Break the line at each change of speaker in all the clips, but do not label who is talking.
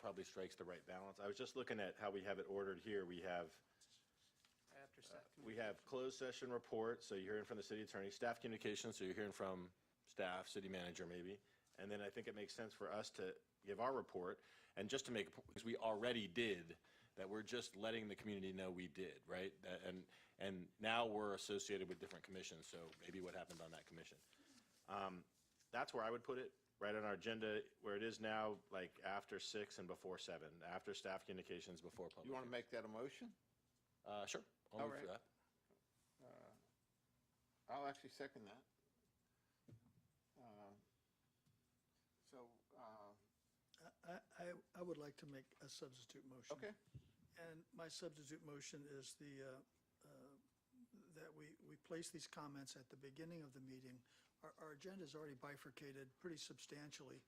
probably strikes the right balance. I was just looking at how we have it ordered here. We have,
After set.
we have closed session report, so you're hearing from the city attorney, staff communications, so you're hearing from staff, city manager maybe. And then I think it makes sense for us to give our report, and just to make, a po- because we already did, that we're just letting the community know we did, right? That- And, and now we're associated with different commissions, so maybe what happened on that commission Um, that's where I would put it, right on our agenda, where it is now, like after six and before seven, after staff communications, before public.
You want to make that a motion?
Uh, sure, I'll
All
move for
right.
that.
Uh, I'll actually second that. Uh, So, uh,
I, I, I would like to make a substitute motion.
okay,
And my substitute motion is the, uh, uh, that we, we place these comments at the beginning of the meeting. Our, our agenda's already bifurcated pretty substantially.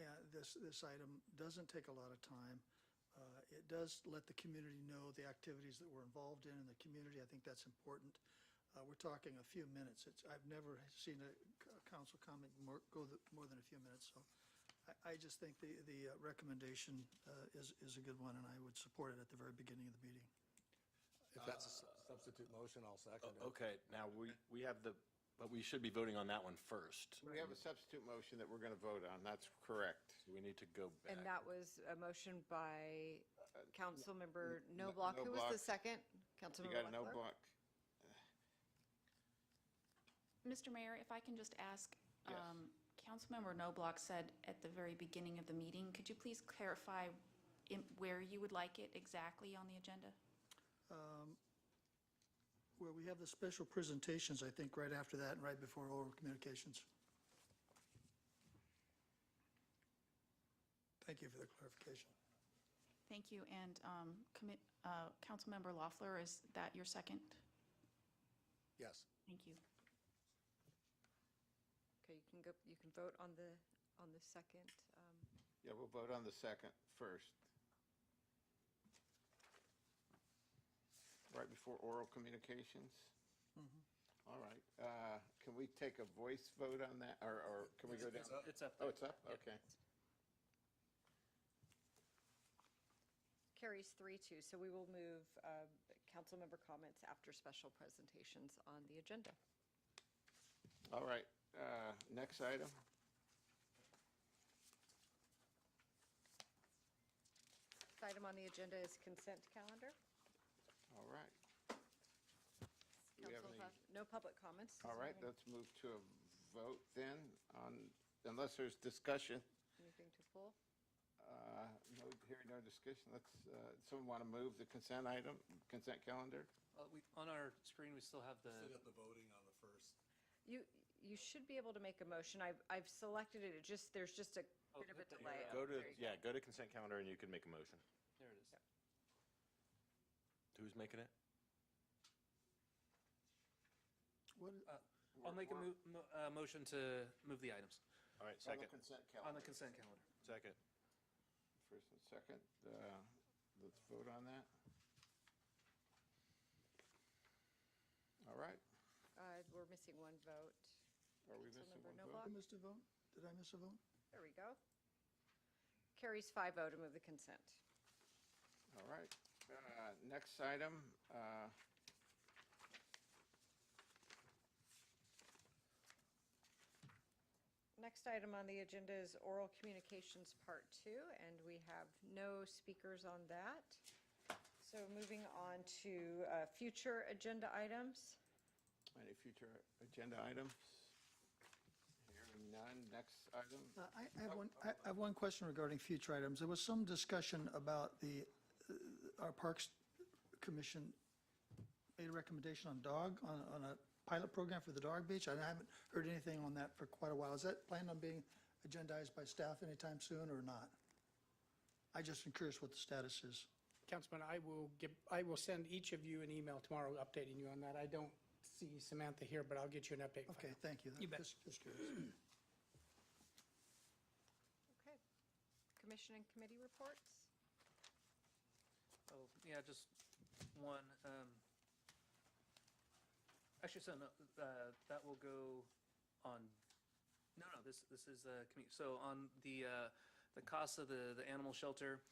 Uh, This, this item doesn't take a lot of time. Uh, It does let the community know the activities that we're involved in in the community. I think that's important. Uh, We're talking a few minutes. It's, I've never seen a c- a council comment more, go the- more than a few minutes, so I, I just think the, the uh, recommendation uh, is, is a good one, and I would support it at the very beginning of the meeting.
If that's a su- substitute motion, I'll second it.
Okay, now we, we have the, but we should be voting on that one first.
we have a substitute motion that we're going to vote on, that's correct.
Do We need to go
And
back.
that was a motion by Councilmember
no-
Noblock. Who was
Noblock.
the second?
You
Councilmember
got no
Leckler?
block?
Mr. Mayor, if I can just ask,
Yes.
um, Councilmember Noblock said at the very beginning of the meeting, could you please clarify in- where you would like it exactly on the agenda?
Where Um, we have the special presentations, I think, right after that and right before oral communications. Thank you for the clarification.
Thank you, and um, commit- uh, Councilmember Loeffler, is that your second?
Yes.
Thank you.
Okay, you can go, you can vote on the, on the second. um,
Yeah, we'll vote on the second first. Right before oral communications? All right, uh, can we take a voice vote on that, or, or can we go down?
uh, It's up there.
Oh, it's up, okay.
Carries three, two, so we will move uh, councilmember comments after special presentations on the agenda.
All right, uh, next item.
This Item on the agenda is consent calendar.
All right, Do we have
Council
any-
has no public
all
comments. Is there
right,
any-
let's move to a vote then on, unless there's discussion.
Anything to pull?
Uh, No, hearing no discussion, let's, uh, someone want to move the consent item, consent calendar?
Well, Uh, we- On our screen, we still have
Still
the,
got the voting on the first.
You, you should be able to make a motion. I've, I've selected it. It just, there's just a
Oh,
bit of a
hit the
delay.
arrow.
Go
There
to,
you go.
yeah, go to consent calendar and you can make a motion.
there it is.
Who's making it?
What,
I'll make a mo- mo- uh, motion to move the items
All right,
On the
second,
consent
on the
calendar.
consent calendar.
second.
First and second, uh, let's vote on that. All right,
Uh, We're missing one vote.
are we missing
Councilmember
one
Noblock?
vote?
I missed a vote? Did I miss a vote?
There we go. Carries 5-0 to move the consent.
All right, Uh, next item. uh,
Next item on the agenda is oral communications, Part 2, and we have no speakers on that. So moving on to uh, future agenda items.
Any future agenda items? Hearing none, next item.
Uh, I I have one, I I have one question regarding future items. There was some discussion about the, uh, our Parks Commission made a recommendation on dog, on, on a pilot program for the dog beach. and I haven't heard anything on that for quite a while. Is that planned on being agendized by staff anytime soon or not? I just am curious what the status is.
Councilman, I will give, I will send each of you an email tomorrow updating you on that. I don't see Samantha here, but I'll get you an update. file.
Okay, thank you.
You bet.
Just- Just curious.
Okay. Commission and committee reports.
Oh, yeah, just one. um, Actually, so no, uh, that will go on, no, no, this, this is, uh, commu- so on the, uh, the cost of the, the animal shelter,